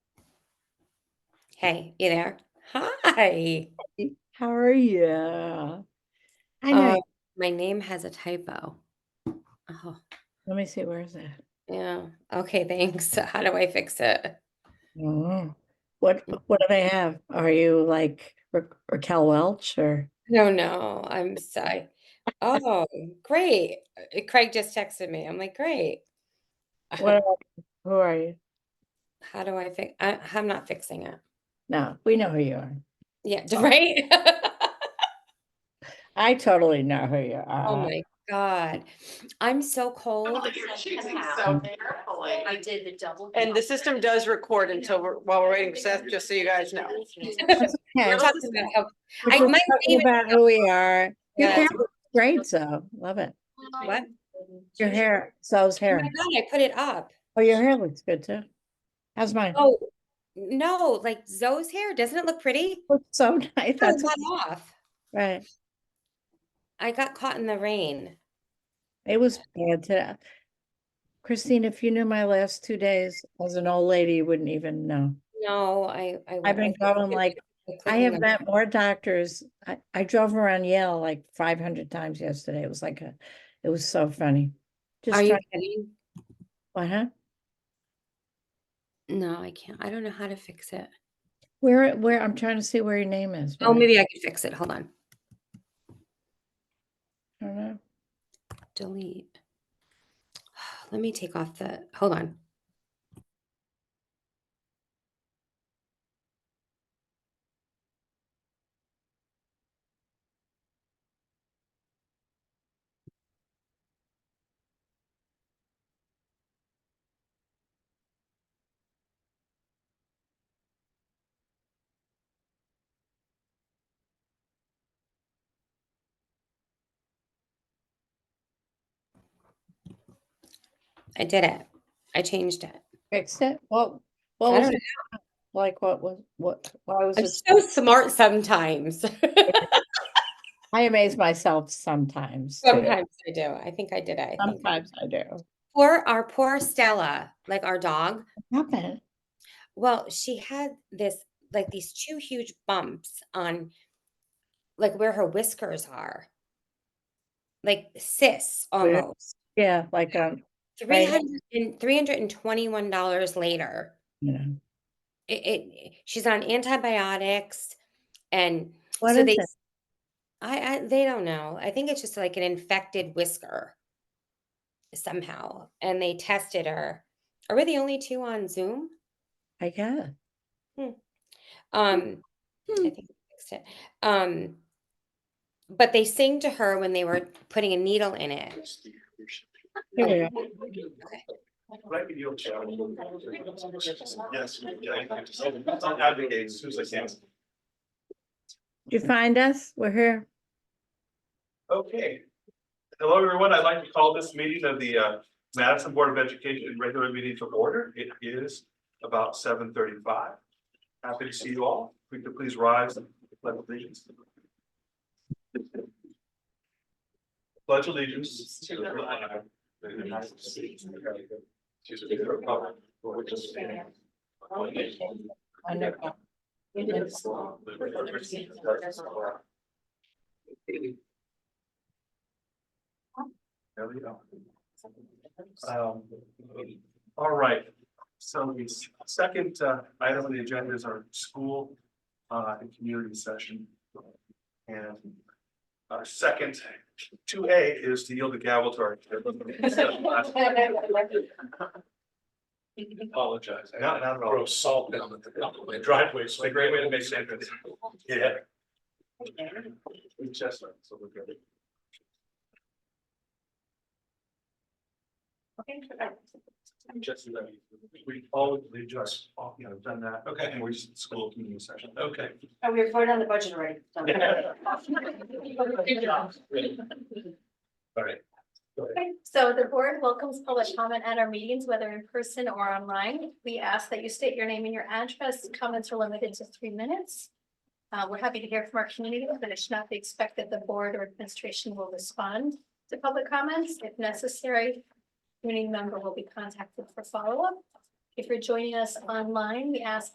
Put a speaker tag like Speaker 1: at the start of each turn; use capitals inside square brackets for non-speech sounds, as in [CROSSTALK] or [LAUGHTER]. Speaker 1: Hey, you there? Hi.
Speaker 2: Hey, How are Uh, you? I know.
Speaker 1: Oh,
Speaker 2: you-
Speaker 1: my name has a typo. Oh,
Speaker 2: Let me see. Where is it?
Speaker 1: yeah. Okay, thanks. [LAUGHS] How do I fix it?
Speaker 2: Oh. What What do they have? Are you like Ra- Raquel Welch or? [LAUGHS]
Speaker 1: No, Oh, no, I'm sorry. Oh, great. Uh, Craig just texted me. I'm like, great.
Speaker 2: What? Are, who are you?
Speaker 1: [LAUGHS] How do I fix? I, I'm not fixing it.
Speaker 2: No, we know who you are.
Speaker 1: Yeah,
Speaker 2: Oh,
Speaker 1: right. [LAUGHS]
Speaker 2: I totally know who you
Speaker 1: oh
Speaker 2: are.
Speaker 1: my God, I'm so cold.
Speaker 3: You're choosing so carefully.
Speaker 4: I did the double.
Speaker 3: And the system does record until we're, while we're waiting for Seth, just so you guys know.
Speaker 2: That's
Speaker 1: We're
Speaker 2: okay.
Speaker 3: We're
Speaker 1: talking about how
Speaker 2: We're
Speaker 1: I
Speaker 2: just
Speaker 1: might
Speaker 2: talking
Speaker 1: even
Speaker 2: about who we are.
Speaker 1: yeah,
Speaker 2: Your
Speaker 1: Oh
Speaker 2: hair looks great, so love it.
Speaker 1: what?
Speaker 2: Your hair, so's
Speaker 1: Oh my
Speaker 2: hair.
Speaker 1: God, I put it up.
Speaker 2: Oh, your hair looks good too. How's mine?
Speaker 1: Oh, no, like Zoe's hair. Doesn't it look pretty?
Speaker 2: Looks [LAUGHS] so nice.
Speaker 1: Got a
Speaker 2: That's
Speaker 1: lot off.
Speaker 2: right.
Speaker 1: I got caught in the rain.
Speaker 2: It was bad today. Christine, if you knew my last two days as an old lady, you wouldn't even know.
Speaker 1: No, I, I,
Speaker 2: I've
Speaker 1: I
Speaker 2: been going
Speaker 1: [LAUGHS]
Speaker 2: like, I have
Speaker 1: that.
Speaker 2: met more doctors. I, I drove around Yale like five hundred times yesterday. It was like a, it was so funny.
Speaker 1: Are
Speaker 2: Just
Speaker 1: you
Speaker 2: trying,
Speaker 1: kidding?
Speaker 2: uh-huh.
Speaker 1: No, I can't. I don't know how to fix it.
Speaker 2: Where, where, I'm trying to see where your name is, but
Speaker 1: Oh,
Speaker 2: I
Speaker 1: maybe I could fix it. Hold on.
Speaker 2: don't know.
Speaker 1: Delete. [SIGHS] Let me take off the, hold on. I did it. I changed it.
Speaker 2: Fixed it? What, what
Speaker 1: I
Speaker 2: was
Speaker 1: don't know.
Speaker 2: it? Like, what was, what, why was
Speaker 1: I'm
Speaker 2: it?
Speaker 1: so smart sometimes. [LAUGHS]
Speaker 2: I amaze myself sometimes too.
Speaker 1: Sometimes I do. I think I did it. I think I
Speaker 2: Sometimes I do.
Speaker 1: poor our poor Stella, like our dog.
Speaker 2: Happened.
Speaker 1: Well, she had this like these two huge bumps on like where her whiskers are, like cysts
Speaker 2: Weird.
Speaker 1: almost.
Speaker 2: Yeah, like, um, right,
Speaker 1: 300 and $321 later,
Speaker 2: you know,
Speaker 1: it, it she's on antibiotics and
Speaker 2: what
Speaker 1: so
Speaker 2: is
Speaker 1: they
Speaker 2: it?
Speaker 1: I, I they don't know. I think it's just like an infected whisker somehow. And they tested her. Are we the only two on Zoom?
Speaker 2: I guess.
Speaker 1: Um
Speaker 2: Hmm.
Speaker 1: I think I fixed it. Um, but they sing to her when they were putting a needle in it.
Speaker 2: Here
Speaker 1: Oh,
Speaker 2: we are.
Speaker 1: okay.
Speaker 5: Right, you Yes. Advocates, who's like, yes.
Speaker 2: You find us? We're here.
Speaker 5: Okay. Hello, everyone. I'd like to call this meeting of the uh, Madison Board of Education regular meeting to order. It is about seven thirty-five. Happy to see you all. If we could please rise and pledge allegiance. Pledge allegiance to the flag of the United States of America, to the republic for which it stands, one nation,
Speaker 2: I know.
Speaker 5: indivisible, with liberty and justice for all. There we go. Um, All right, so the s- second uh, item on the agenda is our school uh, and community session. And our second, two A is to yield the gavel to our.
Speaker 6: Apologize. I
Speaker 5: Not- not at all.
Speaker 6: Throw salt down the down the
Speaker 5: Driveway, it's a great way to make sense. Yeah. Chestnut, so we're good. Just, let me- we always just, you know, done that. Okay. And we're just in school community session. Okay.
Speaker 4: [LAUGHS] Oh, we voted on the budget already.
Speaker 5: All right. Go ahead.
Speaker 7: Okay, so the board welcomes public comment at our meetings, whether in person or online. We ask that you state your name and your address. Comments are limited to three minutes. Uh, we're happy to hear from our community, but it should not be expected the board or administration will respond to public comments. If necessary, community member will be contacted for follow-up. If you're joining us online, we ask